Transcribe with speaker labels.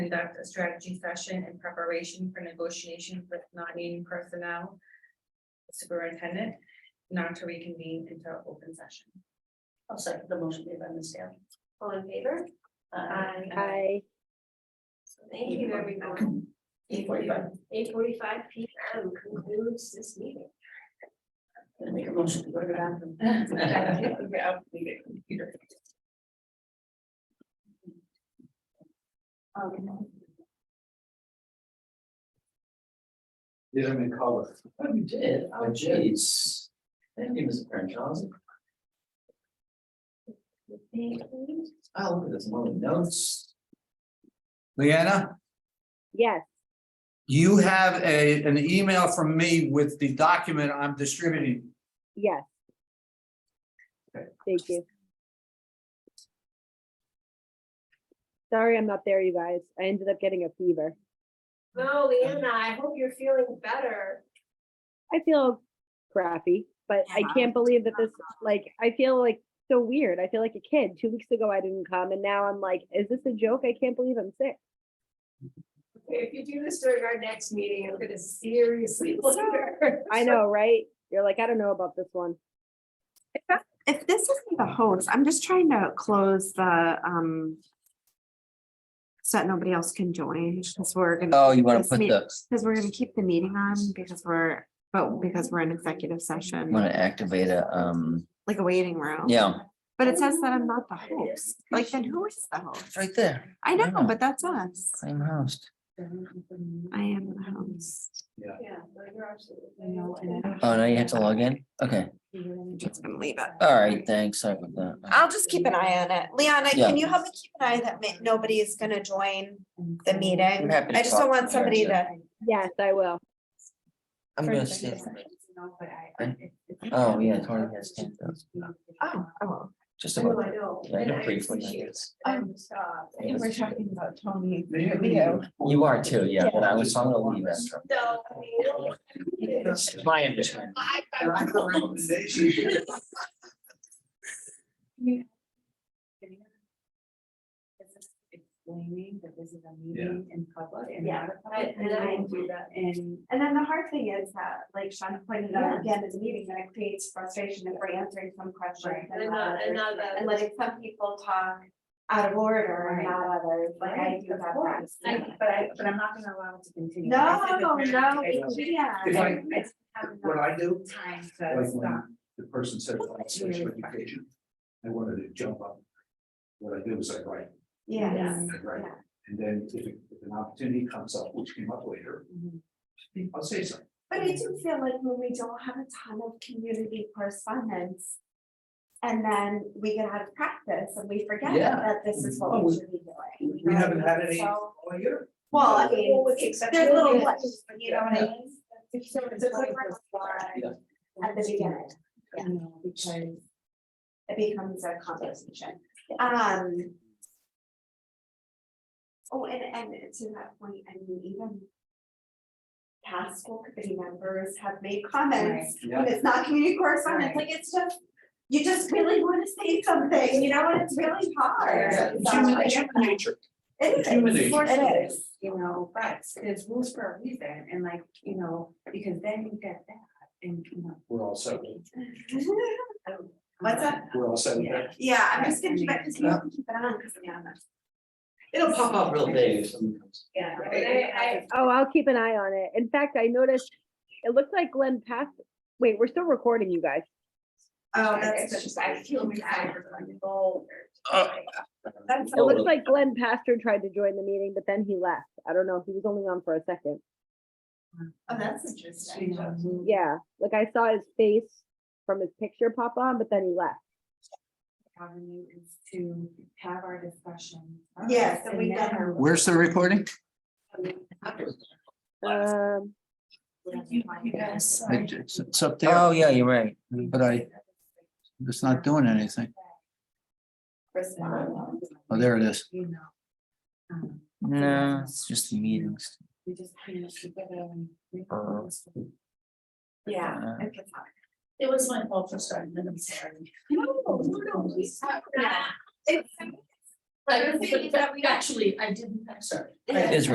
Speaker 1: conduct a strategy session in preparation for negotiations with non-union personnel. Superintendent, not to reconvene into open session.
Speaker 2: I'll second the motion made by Ms. Taylor. All in favor?
Speaker 1: Aye.
Speaker 3: I,
Speaker 2: So Thank you, everyone.
Speaker 1: Eight forty-five.
Speaker 2: Eight forty-five P M concludes this meeting. Gonna make a motion to go to the bathroom.
Speaker 1: Yeah, leave it, computer.
Speaker 4: Oh, Did I make call it? Oh, you did, oh jeez. Thank you, Mr. Crenshaw. Oh, look at this, one of the notes.
Speaker 5: Leanna,
Speaker 3: yes,
Speaker 5: you have a, an email from me with the document I'm distributing.
Speaker 3: yes. Thank you. Sorry, I'm not there, you guys. I ended up getting a fever.
Speaker 2: No, Leanna, I hope you're feeling better.
Speaker 3: I feel crappy, but I can't believe that this, like, I feel like so weird. I feel like a kid. Two weeks ago, I didn't come, and now I'm like, is this a joke? I can't believe I'm sick.
Speaker 2: If you do this during our next meeting, I'm gonna seriously consider.
Speaker 3: I know, right? You're like, I don't know about this one.
Speaker 6: if this isn't the host, I'm just trying to close the, um. So that nobody else can join, because we're gonna,
Speaker 4: Oh, you
Speaker 6: wanna put the- because we're gonna keep the meeting on, because we're, but because we're in executive session,
Speaker 4: activate a, um,
Speaker 6: like a waiting room.
Speaker 4: yeah,
Speaker 6: But it says that I'm not the host, like, then who is the host?
Speaker 4: right there,
Speaker 6: I know,
Speaker 4: Yeah.
Speaker 6: but that's us,
Speaker 4: same host.
Speaker 6: I am the host,
Speaker 2: Yeah, no, you're absolutely.
Speaker 6: No, and I-
Speaker 4: Oh, now you have to log in? Okay,
Speaker 6: I'm just gonna leave it.
Speaker 2: Uh,
Speaker 4: all right, thanks, sorry about that.
Speaker 6: I'll just keep an eye on it. Liana, can
Speaker 4: Yeah.
Speaker 6: you help me keep an eye that ma- nobody is gonna join the meeting?
Speaker 4: happy to
Speaker 6: I just don't
Speaker 4: talk
Speaker 6: want
Speaker 4: to her,
Speaker 6: somebody
Speaker 4: too.
Speaker 6: to.
Speaker 3: Yes, I will.
Speaker 4: I'm gonna see. if- Oh, yeah, Tony has ten thousand,
Speaker 6: Oh, oh.
Speaker 4: just
Speaker 2: I know,
Speaker 4: about,
Speaker 2: I know.
Speaker 4: I
Speaker 2: and
Speaker 4: know briefly. I
Speaker 2: appreciate it.
Speaker 4: guess.
Speaker 2: I'm stopped.
Speaker 4: I guess.
Speaker 6: about Tony
Speaker 4: You are too, yeah, but I was on the leave after.
Speaker 2: No, I mean,
Speaker 4: That's My understanding.
Speaker 2: I- I-
Speaker 6: Explaining that this is a
Speaker 5: meeting
Speaker 6: in public
Speaker 2: and not And I didn't do that.
Speaker 6: And, and then the hard thing is that, like Sean pointed out, again, is meeting that it creates frustration if we're answering some questions.
Speaker 2: And not, and not that.
Speaker 6: And letting some people talk out of order and
Speaker 7: Right.
Speaker 6: not others, like I
Speaker 7: Right,
Speaker 6: do
Speaker 7: of
Speaker 6: have that.
Speaker 7: course. I, but I, but I'm not gonna allow it to continue.
Speaker 6: No,
Speaker 7: I said
Speaker 6: no,
Speaker 7: this
Speaker 6: no,
Speaker 7: very-
Speaker 6: we can't.
Speaker 7: I
Speaker 5: If
Speaker 7: I
Speaker 5: I-
Speaker 7: just have
Speaker 5: What
Speaker 7: enough
Speaker 5: I do,
Speaker 7: time to
Speaker 5: like
Speaker 7: stop.
Speaker 5: when the person said about special education, I wanted to jump up. What I do is I write,
Speaker 6: Yes.
Speaker 5: I write, and then if if an opportunity comes up, which came up later, I'll say something.
Speaker 6: But I do feel like when we don't have a ton of community correspondence. And then we get out of practice and we forget
Speaker 4: Yeah.
Speaker 6: that this is what
Speaker 5: Oh,
Speaker 6: we
Speaker 5: we-
Speaker 6: should be doing.
Speaker 5: We haven't had any
Speaker 6: So-
Speaker 5: all year.
Speaker 6: Well, I mean,
Speaker 2: with the exception
Speaker 6: there's
Speaker 2: of
Speaker 6: little
Speaker 2: this.
Speaker 6: blips, you know what I mean?
Speaker 7: It's so- it's like we're-
Speaker 4: Yeah.
Speaker 6: At
Speaker 7: Mhm.
Speaker 6: the beginning,
Speaker 7: You know, because
Speaker 6: it becomes a conversation. Um. Oh, and, and to that point, I mean, even. Past school committee members have made comments
Speaker 5: Yeah.
Speaker 6: when it's not community correspondence, like it's just, you just really wanna say something, you know, and it's really hard.
Speaker 7: Yeah.
Speaker 6: So,
Speaker 5: Human-
Speaker 6: yeah,
Speaker 5: human nature.
Speaker 6: It is,
Speaker 5: human
Speaker 6: of course
Speaker 7: It
Speaker 6: it
Speaker 7: is,
Speaker 6: is.
Speaker 7: you know, but there's rules for a reason and like, you know, because then you get that and, you know.
Speaker 5: We're all set,
Speaker 6: What's that?
Speaker 5: we're all set with that.
Speaker 6: Yeah, I'm just gonna keep it, cause you have to keep it on, cause I'm honest.
Speaker 4: It'll pop up real big. if something comes.
Speaker 7: Yeah.
Speaker 2: I- I-
Speaker 3: Oh, I'll keep an eye on it. In fact, I noticed, it looks like Glenn passed, wait, we're still recording, you guys.
Speaker 6: Oh,
Speaker 7: It's just, I feel bad.
Speaker 6: That's
Speaker 3: It looks like Glenn Pastor tried to join the meeting, but then he left. I don't know, he was only on for a second.
Speaker 6: Oh, that's
Speaker 7: You
Speaker 6: interesting.
Speaker 7: know,
Speaker 3: Yeah, like I saw his face from his picture pop on, but then he left.
Speaker 7: avenue is to have our discussion. first,
Speaker 6: Yes, and we
Speaker 7: then
Speaker 6: done our-
Speaker 5: Where's the recording?
Speaker 3: Um,
Speaker 7: Yes.
Speaker 5: It's, it's up there,
Speaker 4: Oh, yeah, you're right.
Speaker 5: but I, it's not doing anything.
Speaker 7: Respond.
Speaker 5: Oh, there it is.
Speaker 7: You know. um,
Speaker 4: No, it's just the meetings.
Speaker 7: We just kind of keep it um, we-
Speaker 4: Uh,
Speaker 6: Yeah.
Speaker 4: Uh,
Speaker 6: I guess not.
Speaker 2: It was my fault for starting, and I'm sorry.
Speaker 7: No, no, no, we-
Speaker 6: It's-
Speaker 8: The thing is that we don't-
Speaker 6: Actually, I didn't, I'm sorry.
Speaker 4: It is